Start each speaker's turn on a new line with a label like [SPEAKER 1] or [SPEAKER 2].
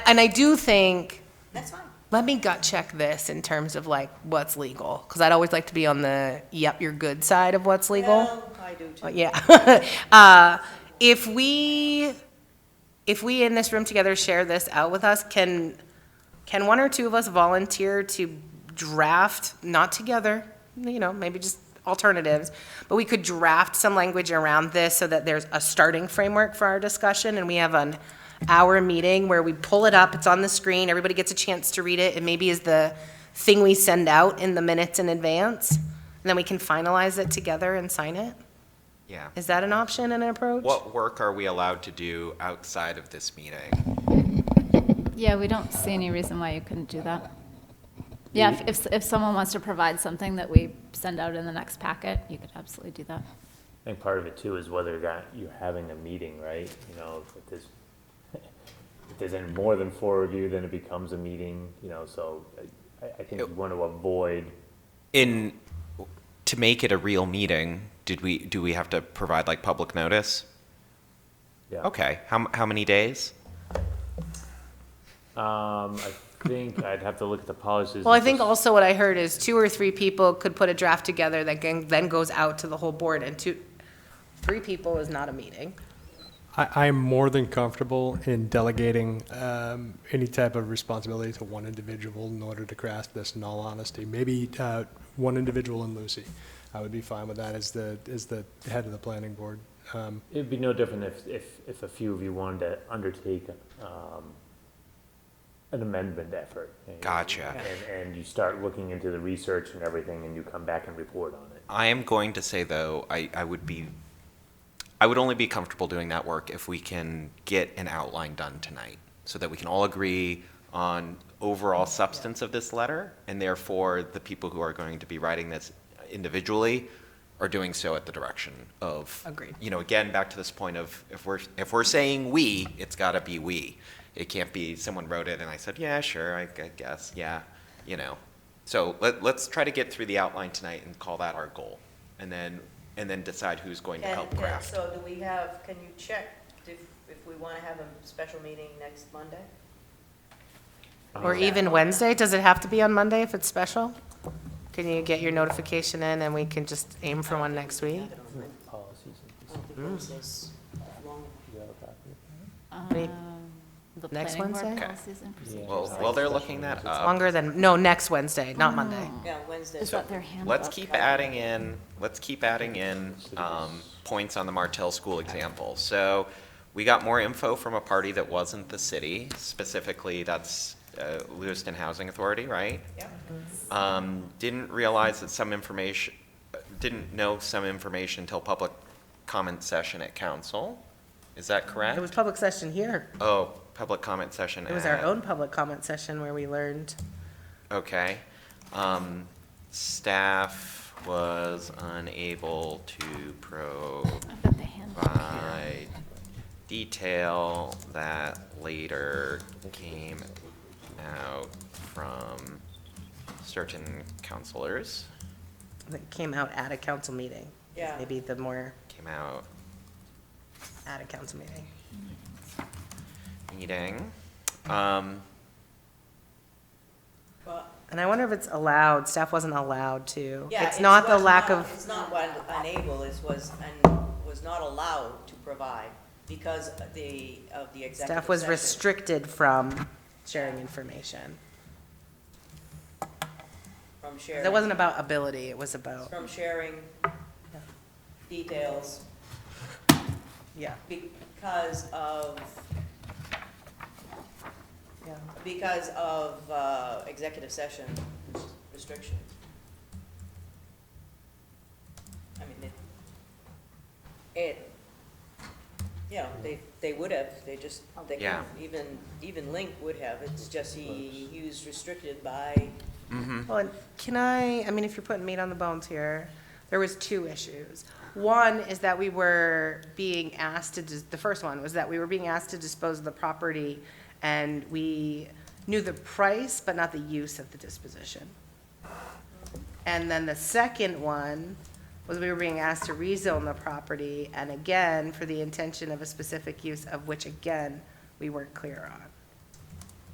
[SPEAKER 1] and I do think,
[SPEAKER 2] That's fine.
[SPEAKER 1] let me gut check this in terms of like what's legal, because I'd always like to be on the, yep, you're good side of what's legal.
[SPEAKER 2] Well, I do
[SPEAKER 1] Uh,
[SPEAKER 2] too.
[SPEAKER 1] Yeah. Uh, If we, if we in this room together share this out with us, can, can one or two of us volunteer to draft, not together, you know, maybe just alternatives, but we could draft some language around this so that there's a starting framework for our discussion and we have an hour meeting where we pull it up, it's on the screen, everybody gets a chance to read it, it maybe is the thing we send out in the minutes in advance, and then we can finalize it together and sign it?
[SPEAKER 3] Yeah.
[SPEAKER 1] Is that an option and an approach?
[SPEAKER 3] What work are we allowed to do outside of this meeting?
[SPEAKER 4] Yeah, we don't see any reason why you couldn't do that. Yeah, if- if, if someone wants to provide something that we send out in the next packet, you could absolutely do that.
[SPEAKER 5] I think part of it too is whether or not you're having a meeting, right? You know, if there's, if there's any more than four of you, then it becomes a meeting, you know, so I, I think you want to avoid,
[SPEAKER 3] In, to make it a real meeting, did we, do we have to provide like public notice?
[SPEAKER 5] yeah.
[SPEAKER 3] Okay, how, m- how many days?
[SPEAKER 5] Um, I think I'd have to look at the policies.
[SPEAKER 1] Well, I
[SPEAKER 5] and
[SPEAKER 1] think
[SPEAKER 5] just-
[SPEAKER 1] also what I heard is two or three people could put a draft together that can- then goes out to the whole board, and two, three people is not a meeting.
[SPEAKER 6] I, I'm more than comfortable in delegating um, any type of responsibility to one individual in order to grasp this. In all honesty, maybe uh, one individual and Lucy, I would be fine with that as the as the head of the planning board. Um,
[SPEAKER 5] It'd be no different if, if, if a few of you wanted to undertake, um, an amendment effort. and-
[SPEAKER 3] Gotcha.
[SPEAKER 5] And, and you start looking into the research and everything and you come back and report on it.
[SPEAKER 3] I am going to say though, I, I would be, I would only be comfortable doing that work if we can get an outline done tonight, so that we can all agree on overall substance of this letter, and therefore the people who are going to be writing this individually are doing so at the direction of.
[SPEAKER 1] Agreed.
[SPEAKER 3] You know, again, back to this point of if we're if we're saying we, it's got to be we. It can't be someone wrote it and I said, yeah, sure, I, I guess, yeah, you know. So let, let's try to get through the outline tonight and call that our goal, and then and then decide who's going to
[SPEAKER 2] Can-
[SPEAKER 3] help
[SPEAKER 2] can-
[SPEAKER 3] craft.
[SPEAKER 2] So do we have, can you check if, if we want to have a special meeting next Monday?
[SPEAKER 1] Or even Wednesday, does it have to be on Monday if it's special? Can you get your notification in and we can just aim for one next week?
[SPEAKER 5] Policies and
[SPEAKER 2] I don't think Wednesday's long.
[SPEAKER 1] Maybe-
[SPEAKER 4] Um, The
[SPEAKER 1] Next
[SPEAKER 4] planning board
[SPEAKER 1] Wednesday?
[SPEAKER 3] Okay.
[SPEAKER 4] policies and procedures.
[SPEAKER 3] Well, while they're looking that up,
[SPEAKER 1] Longer than, no, next Wednesday, not Monday.
[SPEAKER 2] Yeah, Wednesday's.
[SPEAKER 4] Is that their handbook?
[SPEAKER 3] let's keep adding in. Let's keep adding in um, points on the Martell School example. So we got more info from a party that wasn't the city specifically. That's uh, Lewiston Housing Authority, right?
[SPEAKER 2] Yeah.
[SPEAKER 3] um, didn't realize that some information, didn't know some information until public comment session at council. Is that correct?
[SPEAKER 1] It was public session here.
[SPEAKER 3] Oh, public comment session
[SPEAKER 1] It was our
[SPEAKER 3] at-
[SPEAKER 1] own public comment session where we learned.
[SPEAKER 3] Okay. Um, staff was unable to
[SPEAKER 4] I've got the handbook here.
[SPEAKER 3] provide detail that later came out from certain counselors.
[SPEAKER 1] that came out at a council meeting. is
[SPEAKER 2] Yeah.
[SPEAKER 1] Maybe the more
[SPEAKER 3] Came out
[SPEAKER 1] at a council meeting.
[SPEAKER 3] meeting. Um,
[SPEAKER 2] Well,
[SPEAKER 1] And I wonder if it's allowed, staff wasn't allowed to.
[SPEAKER 2] yeah,
[SPEAKER 1] It's not the
[SPEAKER 2] was
[SPEAKER 1] lack
[SPEAKER 2] not-
[SPEAKER 1] of,
[SPEAKER 2] It's not what unable is, was, and was not allowed to provide because of the, of the executive
[SPEAKER 1] staff was
[SPEAKER 2] session.
[SPEAKER 1] restricted from sharing information.
[SPEAKER 2] From sharing.
[SPEAKER 1] That wasn't about ability, it was about,
[SPEAKER 2] From sharing details
[SPEAKER 1] yeah,
[SPEAKER 2] because of,
[SPEAKER 1] yeah.
[SPEAKER 2] because of uh, executive session restrictions. I mean, it, it, you know, they, they would have, they just, they
[SPEAKER 3] Yeah.
[SPEAKER 2] couldn't, even, even Link would have, it's just he, he was restricted by,
[SPEAKER 1] Well, and can I, I mean, if you're putting meat on the bones here, there was two issues. One is that we were being asked to, dis- the first one was that we were being asked to dispose of the property and we knew the price, but not the use of the disposition. And then the second one was we were being asked to rezone the property and again, for the intention of a specific use of which again, we weren't clear on.